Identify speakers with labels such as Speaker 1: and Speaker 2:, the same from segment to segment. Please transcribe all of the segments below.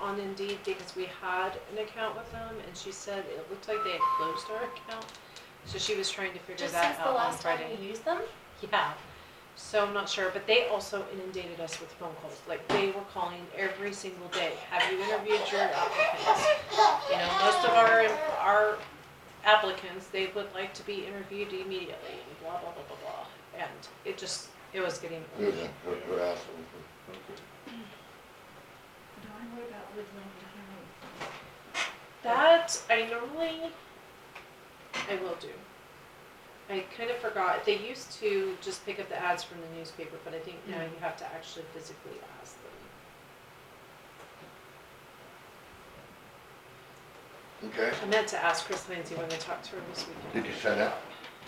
Speaker 1: on Indeed because we had an account with them and she said it looked like they had closed our account. So she was trying to figure
Speaker 2: Just
Speaker 1: that
Speaker 2: since the
Speaker 1: out on
Speaker 2: last time
Speaker 1: Friday.
Speaker 2: we used them?
Speaker 1: Yeah, so I'm not sure, but they also inundated us with phone calls, like they were calling every single day, have you interviewed your applicants? You know, most of our, our applicants, they would like to be interviewed immediately, and blah, blah, blah, blah, blah, and it just, it was getting.
Speaker 3: Good, we're, we're asking.
Speaker 4: Okay.
Speaker 5: Dawn, what about Woodland County?
Speaker 1: That I normally, I will do. I kind of forgot, they used to just pick up the ads from the newspaper, but I think now
Speaker 2: Mm.
Speaker 1: you have to actually physically ask them.
Speaker 3: Okay,
Speaker 1: I meant to ask Chris Lancy when I talked to her this weekend.
Speaker 3: did you send out?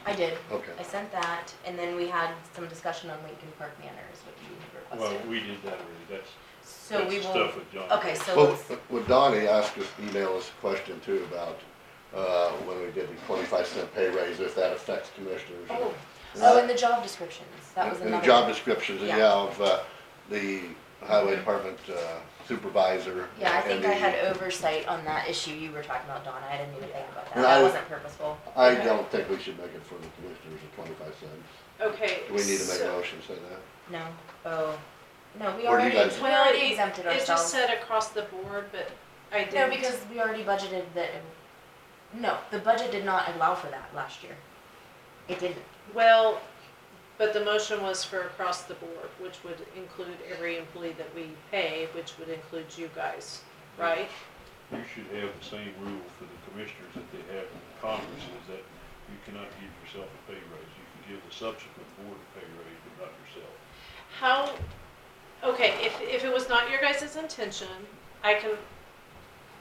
Speaker 2: I did.
Speaker 3: Okay.
Speaker 2: I sent that, and then we had some discussion on Lincoln Park Manor is what you
Speaker 4: Well,
Speaker 2: requested.
Speaker 4: we did that already, that's,
Speaker 2: So we
Speaker 4: that's
Speaker 2: will,
Speaker 4: stuff with John.
Speaker 2: okay, so
Speaker 3: Well,
Speaker 2: let's,
Speaker 3: well, Donnie asked us, email us a question too about, uh, when we did the twenty-five cent pay raise, if that affects commissioners.
Speaker 2: oh,
Speaker 3: And
Speaker 2: oh,
Speaker 3: that-
Speaker 2: and the job descriptions, that was
Speaker 3: And
Speaker 2: another.
Speaker 3: the job descriptions, and
Speaker 2: Yeah.
Speaker 3: yeah, of, uh, the highway department uh, supervisor.
Speaker 2: Yeah, I
Speaker 3: and
Speaker 2: think I
Speaker 3: the-
Speaker 2: had oversight on that issue you were talking about, Donna, I didn't even think about that,
Speaker 3: And I
Speaker 2: that
Speaker 3: was-
Speaker 2: wasn't purposeful.
Speaker 3: I don't think we should make it for the commissioners at twenty-five cents.
Speaker 1: Okay.
Speaker 3: Do we need to make
Speaker 1: so-
Speaker 3: a motion, say that?
Speaker 2: No, oh, no, we
Speaker 3: Or do
Speaker 2: already,
Speaker 3: you guys-
Speaker 2: we already exempted
Speaker 1: It just
Speaker 2: ourselves.
Speaker 1: said across the board, but I
Speaker 2: No,
Speaker 1: didn't.
Speaker 2: because we already budgeted that, no, the budget did not allow for that last year. It didn't,
Speaker 1: Well, but the motion was for across the board, which would include every employee that we pay, which would include you guys, right?
Speaker 4: You should have the same rule for the commissioners that they have in Congress, is that you cannot give yourself a pay raise. You can give the subsequent board a pay raise, but not yourself.
Speaker 1: How, okay, if, if it was not your guys' intention, I can,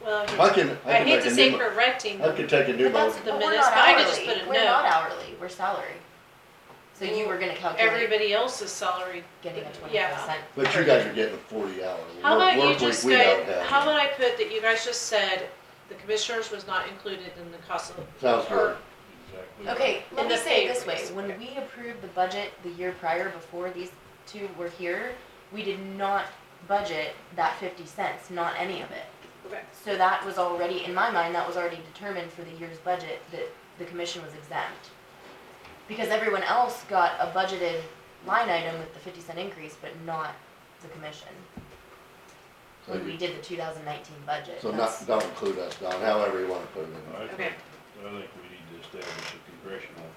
Speaker 1: well,
Speaker 3: I can, I
Speaker 1: I
Speaker 3: can
Speaker 1: hate
Speaker 3: make
Speaker 1: to
Speaker 3: a
Speaker 1: say
Speaker 3: new, mo-
Speaker 1: correcting
Speaker 3: I
Speaker 1: them.
Speaker 3: could take a new
Speaker 2: but that's,
Speaker 3: motion.
Speaker 1: The
Speaker 2: but we're
Speaker 1: minutes,
Speaker 2: not
Speaker 1: but I could just
Speaker 2: hourly,
Speaker 1: put a
Speaker 2: we're
Speaker 1: no.
Speaker 2: not hourly, we're salary. So you were gonna calculate
Speaker 1: Everybody else's salary
Speaker 2: getting a twenty
Speaker 1: yeah.
Speaker 2: percent.
Speaker 3: But you guys are getting a forty hour.
Speaker 1: How
Speaker 3: work-
Speaker 1: about you
Speaker 3: work week
Speaker 1: just
Speaker 3: we
Speaker 1: go,
Speaker 3: don't have.
Speaker 1: how about I put that you guys just said the commissioners was not included in the cost of.
Speaker 3: Sounds
Speaker 1: or-
Speaker 3: good.
Speaker 4: Exactly.
Speaker 2: Okay, let
Speaker 1: And
Speaker 2: me
Speaker 1: the
Speaker 2: say
Speaker 1: pay
Speaker 2: it this way,
Speaker 1: raise,
Speaker 2: when
Speaker 1: okay.
Speaker 2: we approved the budget the year prior before these two were here, we did not budget that fifty cents, not any of it.
Speaker 1: Okay,
Speaker 2: So that was already, in my mind, that was already determined for the year's budget that the commission was exempt. Because everyone else got a budgeted line item with the fifty cent increase, but not the commission.
Speaker 3: So
Speaker 2: When
Speaker 3: you-
Speaker 2: we did the two thousand nineteen budget,
Speaker 3: So not,
Speaker 2: that's,
Speaker 3: don't include us, Don, however you wanna put it in.
Speaker 4: I
Speaker 1: Okay.
Speaker 4: think, I think we need to establish a congressional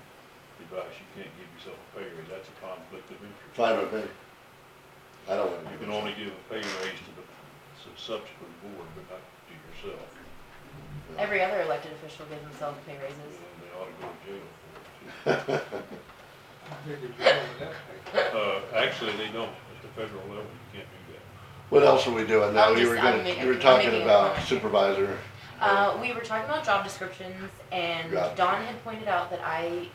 Speaker 4: device. You can't give yourself a pay raise. That's a conflict of interest.
Speaker 3: Fine with me. I don't wanna. do
Speaker 4: You can
Speaker 3: this.
Speaker 4: only give a pay raise to the to the subsequent board, but not to yourself.
Speaker 3: No.
Speaker 2: every other elected official gave themselves pay raises.
Speaker 4: And they ought to go to jail for it, too. Uh, actually, they don't, at the federal level, you can't do that.
Speaker 3: What else are we doing now?
Speaker 2: I'm
Speaker 3: You were
Speaker 2: just- I'm
Speaker 3: gonna,
Speaker 2: making-
Speaker 3: you were
Speaker 2: I'm
Speaker 3: talking
Speaker 2: making a
Speaker 3: about
Speaker 2: comment.
Speaker 3: supervisor.
Speaker 2: Uh, we were talking about job descriptions and
Speaker 3: Job
Speaker 2: Don had pointed out that I,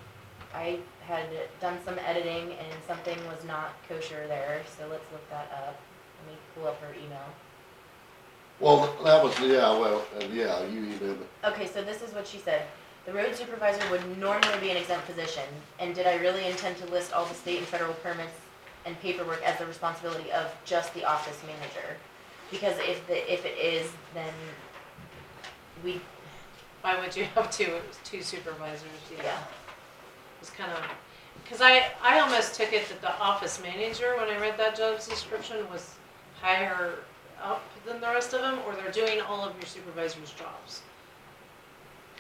Speaker 2: I had done some editing and something was not kosher there, so let's look that up. Let me pull up her email.
Speaker 3: Well, that was, yeah, well, uh, yeah, you even,
Speaker 2: Okay, so this is what she said. The road supervisor would normally be an exempt position, and did I really intend to list all the state and federal permits and paperwork as the responsibility of just the office manager? Because if the, if it is, then we,
Speaker 1: Why would you have two, it was two supervisors, yeah,
Speaker 2: yeah.
Speaker 1: it was kind of, cause I, I almost took it that the office manager, when I read that job description, was higher up than the rest of them, or they're doing all of your supervisors' jobs.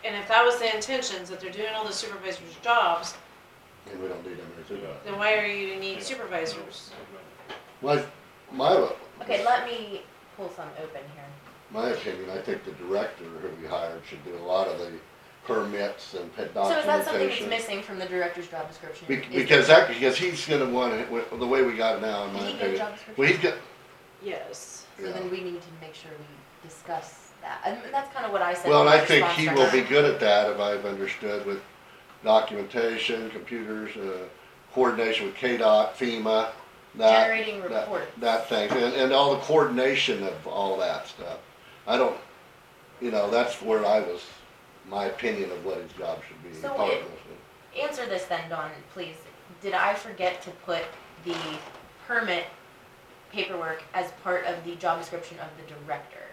Speaker 1: And if that was the intentions, that they're doing all the supervisors' jobs,
Speaker 3: and we don't need any supervisor.
Speaker 1: then why are you need
Speaker 4: Yeah.
Speaker 1: supervisors?
Speaker 3: My, my,
Speaker 2: Okay, let me pull some open here.
Speaker 3: my opinion, I think the director who we hired should do a lot of the permits and pet
Speaker 2: So is that something that's
Speaker 3: documentation.
Speaker 2: missing from the director's job description?
Speaker 3: Be-
Speaker 2: Is-
Speaker 3: Because um, that, because he's gonna want it, wi- the way we got it now, in
Speaker 2: Did
Speaker 3: my
Speaker 2: he get a
Speaker 3: opinion.
Speaker 2: job description?
Speaker 3: Well, he's got,
Speaker 1: Yes.
Speaker 2: So
Speaker 3: uh, yeah.
Speaker 2: then we need to make sure we discuss that, and that's kind of what I said.
Speaker 3: Well,
Speaker 2: in
Speaker 3: and
Speaker 2: my
Speaker 3: I think
Speaker 2: response
Speaker 3: he
Speaker 2: to
Speaker 3: will
Speaker 2: her.
Speaker 3: be good at that, if I've understood, with documentation, computers, uh, coordination with KDOT, FEMA, that.
Speaker 2: Generating
Speaker 3: that-
Speaker 2: reports.
Speaker 3: That thing, and, and all the coordination of all that stuff. I don't, you know, that's where I was, my opinion of what his job should be.
Speaker 2: So
Speaker 3: part of
Speaker 2: it-
Speaker 3: this.
Speaker 2: Answer this then, Dawn, please. Did I forget to put the permit paperwork as part of the job description of the director?